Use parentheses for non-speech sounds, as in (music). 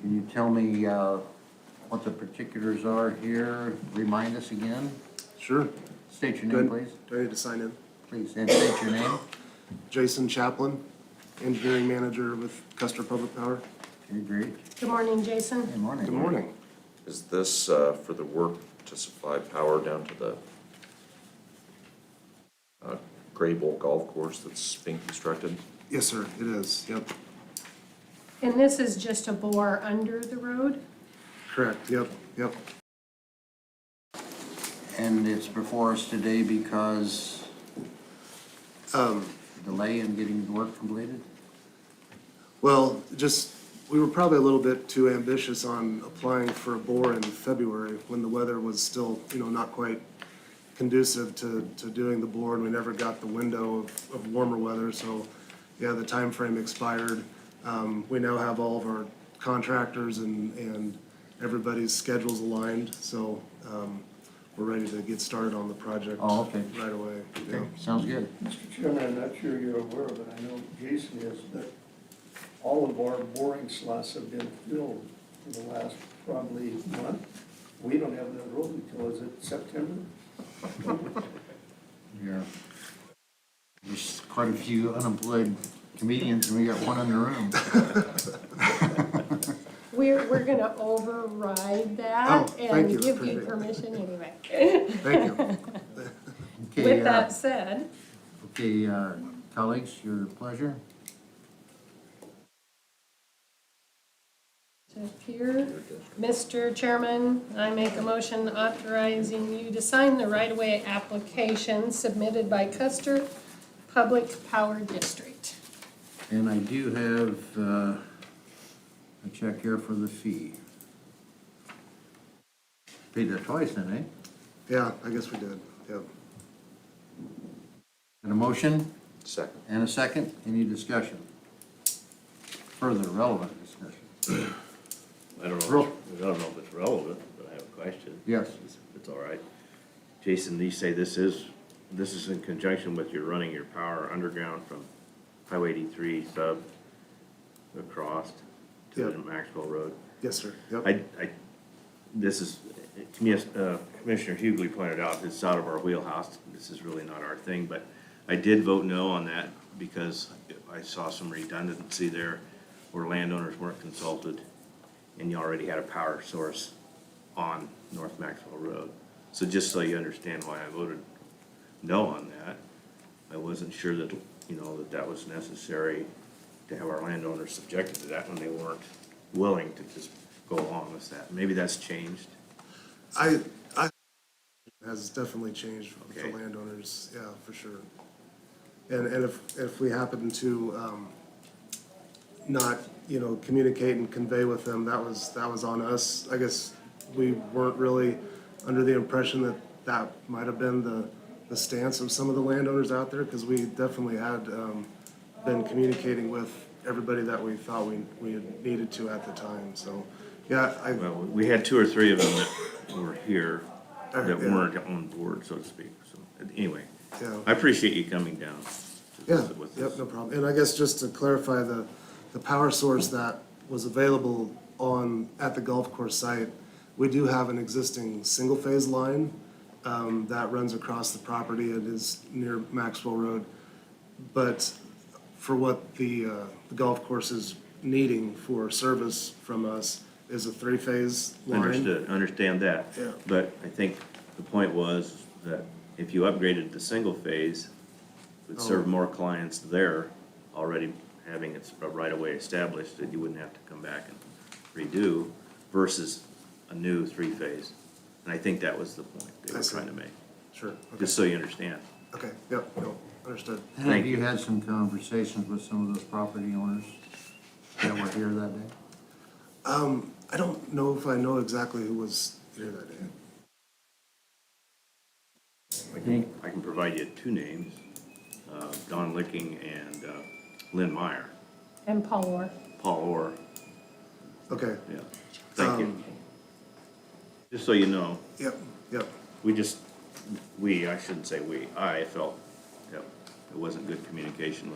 Can you tell me uh, what the particulars are here? Remind us again. Sure. State your Do I- name, please. Do I need to sign in? Please, and state your name. Jason Chaplin, engineering manager with Custer Public Power. Okay, great. Good morning, Jason. Good morning. Good morning. Is this uh, for the work to supply power down to the uh, Gray Bowl Golf Course that's being constructed? Yes, sir, it is. Yep, And this is just a bore under the road? correct. Yep, yep. And it's before us today because Um, delay in getting the work completed? Well, just, we were probably a little bit too ambitious on applying for a bore in February when the weather was still, you know, not quite conducive to, to doing the bore and we never got the window of, of warmer weather, so, yeah, the time frame expired. Um, we now have all of our contractors and, and everybody's schedules aligned, so, um, we're ready to get started on the project Oh, okay. right away. yeah. Okay, sounds good. Mr. Chairman, I'm not sure you're aware of it, I know Jason is, but all of our boring slots have been filled for the last probably month. We don't have that road until, is it September? Yeah. There's quite a few unemployed comedians, and we got one in the room. We're, we're gonna override that Oh, thank you, and give you appreciate it. permission (laughs) anyway. Thank you. (laughs) Okay, With uh, that said, Okay, uh, colleagues, your pleasure. to appear, Mr. Chairman, I make a motion authorizing you to sign the right-of-way application submitted by Custer Public Power District. And I do have uh, a check here for the fee. Paid that twice then, eh? Yeah, I guess we did, yep. And a motion Second. and a second, any discussion? Further relevant discussion? I don't know, Real- if- I don't know if it's relevant, but I have a question. Yes. It's- It's all right. Jason, you say this is, this is in conjunction with your running your power underground from Highway eighty-three sub across to Yeah. the Maxwell Road. Yes, sir, yep. I, I, this is, to me, as, uh, Commissioner Hughley pointed out, it's out of our wheelhouse, this is really not our thing, but I did vote no on that because I saw some redundancy there where landowners weren't consulted and you already had a power source on North Maxwell Road. So just so you understand why I voted no on that, I wasn't sure that, you know, that that was necessary to have our landowners subjected to that when they weren't willing to just go along with that. Maybe that's changed. I, I, has definitely changed for Okay. landowners, yeah, for sure. And, and if, if we happen to, um, not, you know, communicate and convey with them, that was, that was on us. I guess we weren't really under the impression that that might have been the, the stance of some of the landowners out there, because we definitely had, um, been communicating with everybody that we thought we, we had needed to at the time, so, yeah, I, Well, we had two or three of them that were here that Uh, Yeah. weren't on board, so to speak. So, anyway, Yeah. I appreciate you coming down. to Yeah, visit with yep, us. no problem. And I guess just to clarify, the, the power source that was available on, at the golf course site, we do have an existing single-phase line um, that runs across the property and is near Maxwell Road. But for what the, uh, the golf course is needing for service from us is a three-phase line. Understood, understand that. Yeah. But I think the point was that if you upgraded to single phase, it would Oh. serve more clients there, already having its right-of-way established, that you wouldn't have to come back and redo versus a new three-phase. And I think that was the point they I were see. trying to make, Sure, okay, just so you understand. okay, yep, no, understood. And Have Thank you you. had some conversations with some of those property owners that were here that day? I don't know if I know exactly who was here that day. I can- I can provide you two names, uh, Don Licking and uh, Lynn Meyer, And Paul Orr. Paul Orr, Okay, Yeah, thank you. Um, Just so you know, yep, yep. we just, we, I shouldn't say we, I felt that it wasn't good communication